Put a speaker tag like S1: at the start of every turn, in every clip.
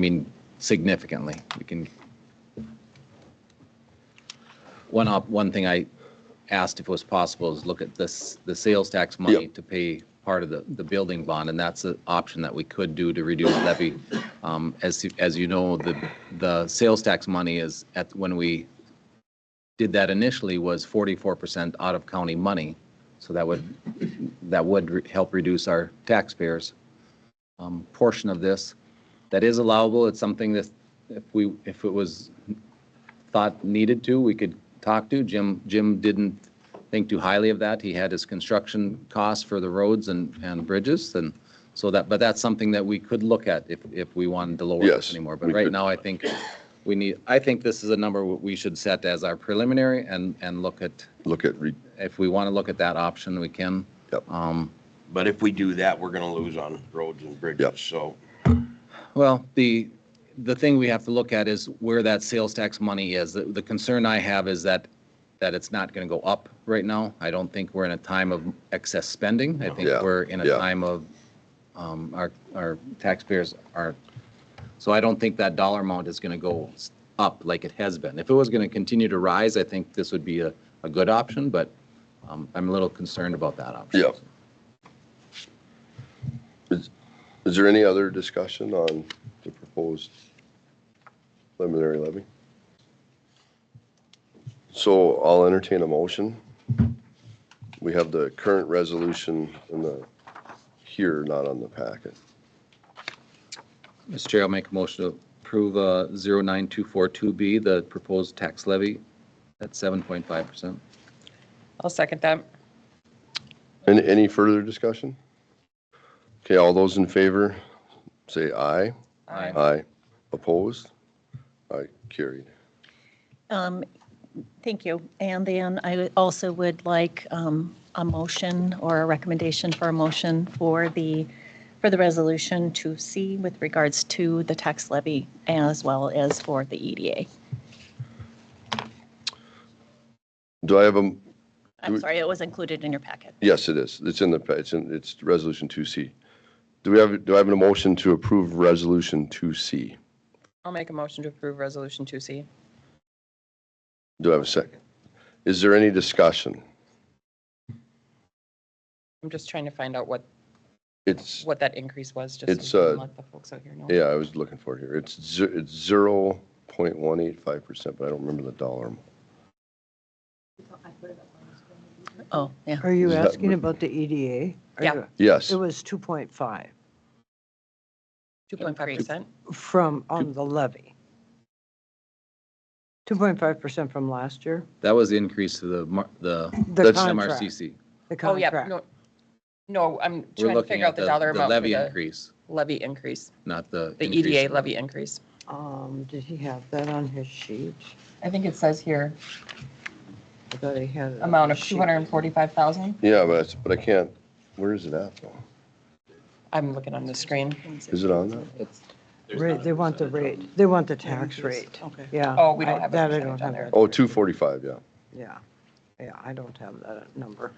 S1: mean, significantly. We can. One op, one thing I asked if it was possible is look at this, the sales tax money
S2: Yep.
S1: to pay part of the, the building bond, and that's an option that we could do to reduce levy. Um, as, you- as you know, the, the sales tax money is at, when we did that initially was forty-four percent out of county money. So that would, that would re- help reduce our taxpayers' um, portion of this. That is allowable. It's something that if we, if it was thought needed to, we could talk to. Jim, Jim didn't think too highly of that. He had his construction costs for the roads and, and bridges and so that, but that's something that we could look at if, if we wanted to lower
S2: Yes,
S1: this anymore. But
S2: we
S1: right
S2: could.
S1: now, I think we need, I think this is a number we should set as our preliminary and, and look at,
S2: look at, re-
S1: if we want to look at that option, we can.
S2: Yep.
S1: Um,
S3: But if we do that, we're gonna lose on roads and
S2: Yep.
S3: bridges, so.
S1: Well, the, the thing we have to look at is where that sales tax money is. The- The concern I have is that, that it's not going to go up right now. I don't think we're in a time of excess spending. I think
S2: Yeah,
S1: we're in a
S2: yeah.
S1: time of, um, our, our taxpayers are, so I don't think that dollar amount is going to go s- up like it has been. If it was going to continue to rise, I think this would be a, a good option, but um, I'm a little concerned about that option.
S2: Yeah. is there any other discussion on the proposed preliminary levy? So I'll entertain a motion. We have the current resolution in the, here, not on the packet.
S1: Mr. Chair, I'll make a motion to approve uh, 09242B, the proposed tax levy at 7.5%.
S4: I'll second that.
S2: Any, any further discussion? Okay, all those in favor, say aye.
S1: Aye.
S2: Aye. Opposed? Aye, carried.
S5: Um, Thank you. And then I would- also would like um, a motion or a recommendation for a motion for the, for the resolution to C with regards to the tax levy as well as for the E EDA.
S2: Do I have a, Do
S5: I'm
S2: we-
S5: sorry, it was included in your packet.
S2: yes, it is. It's in the, it's in, it's resolution 2C. Do we have, do I have a motion to approve resolution 2C?
S4: I'll make a motion to approve Resolution 2C.
S2: Do I have a second? Is there any discussion?
S4: I'm just trying to find out what,
S2: It's,
S4: what that increase was, just. so
S2: It's,
S4: we can
S2: uh,
S4: Let the folks out here know.
S2: yeah, I was looking for it here. It's, ze- it's 0.185%, but I don't remember the dollar. amount.
S5: Oh, yeah.
S6: Are you
S2: Is that-
S6: asking about the E EDA? Or-
S4: Yeah.
S2: Yes,
S6: It was 2.5
S4: 2.5%?
S6: from, on the levy. 2.5% from last year?
S1: That was the increase to the, mar- the
S6: The
S2: That's-
S6: contract.
S1: MRCC.
S6: The
S4: Oh, yeah,
S6: contract.
S4: no, no, I'm
S1: We're
S4: trying to
S1: looking
S4: figure out
S1: at
S4: the
S1: the
S4: dollar
S1: the
S4: amount for
S1: levy
S4: the
S1: increase,
S4: levy increase,
S1: not the.
S4: the E
S1: increase
S4: EDA
S1: for-
S4: levy increase.
S6: Um, did he have that on his sheet?
S4: I think it says here,
S6: I thought he had. it on
S4: amount of
S6: his sheet.
S4: 245,000.
S2: yeah, but, it's- but I can't, where is it at though?
S4: I'm looking on the screen.
S2: Is it on that?
S6: Rate- They want the rate, they want the tax rate.
S4: Okay.
S6: Yeah.
S4: Oh, we don't
S6: I-
S4: have a
S6: that I
S4: percentage
S6: don't
S4: on
S6: have
S4: there.
S6: that.
S2: Oh, 245, yeah.
S6: Yeah, yeah, I don't have that number.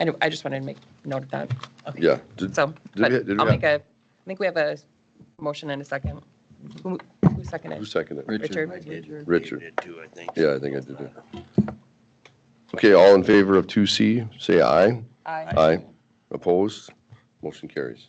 S4: Anyway, I just wanted to make note of that.
S2: Yeah. Did-
S4: So,
S2: we-
S4: but
S2: did we
S4: I'll
S2: have-
S4: make a, I think we have a motion and a second. Who who seconded?
S2: Who seconded it?
S1: Richard.
S4: Richard?
S2: Richard.
S3: Did too, I think.
S2: Yeah, I think I did it. Okay, all in favor of 2C, say aye.
S4: Aye.
S2: Aye. Opposed? Motion carries.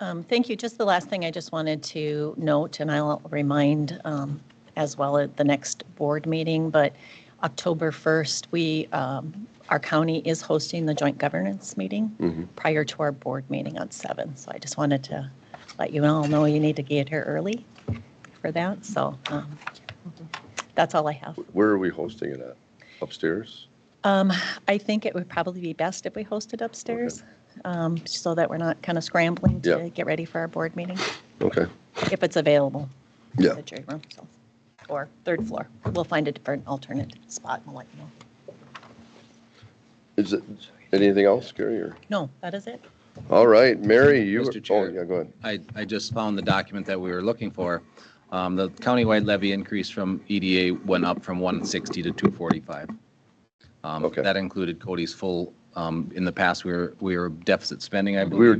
S5: Um, Thank you. Just the last thing I just wanted to note, and I'll remind um, as well at the next board meeting, but October 1st, we, um, our county is hosting the joint governance meeting prior to our board meeting on 7. So I just wanted to let you all know you need to get here early for that. So um, that's all I have.
S2: Where are we hosting it at? Upstairs?
S5: Um, I think it would probably be best if we hosted upstairs um, so that we're not kind of scrambling
S2: Yeah.
S5: to get ready for our board meeting
S2: Okay,
S5: if it's available.
S2: Yeah.
S5: The jury room, so, or third floor. We'll find a different alternate spot and we'll let you know.
S2: is it, anything else, Gary, or?
S5: No, that is it?
S2: All right, Mary, you,
S1: Mr.
S2: oh,
S1: Chair.
S2: yeah, go ahead.
S1: I, I just found the document that we were looking for. Um, The countywide levy increase from EDA went up from 160 to 245. Um,
S2: Okay.
S1: That included Cody's full, um, in the past, we were, we were deficit spending, I believe.
S2: We were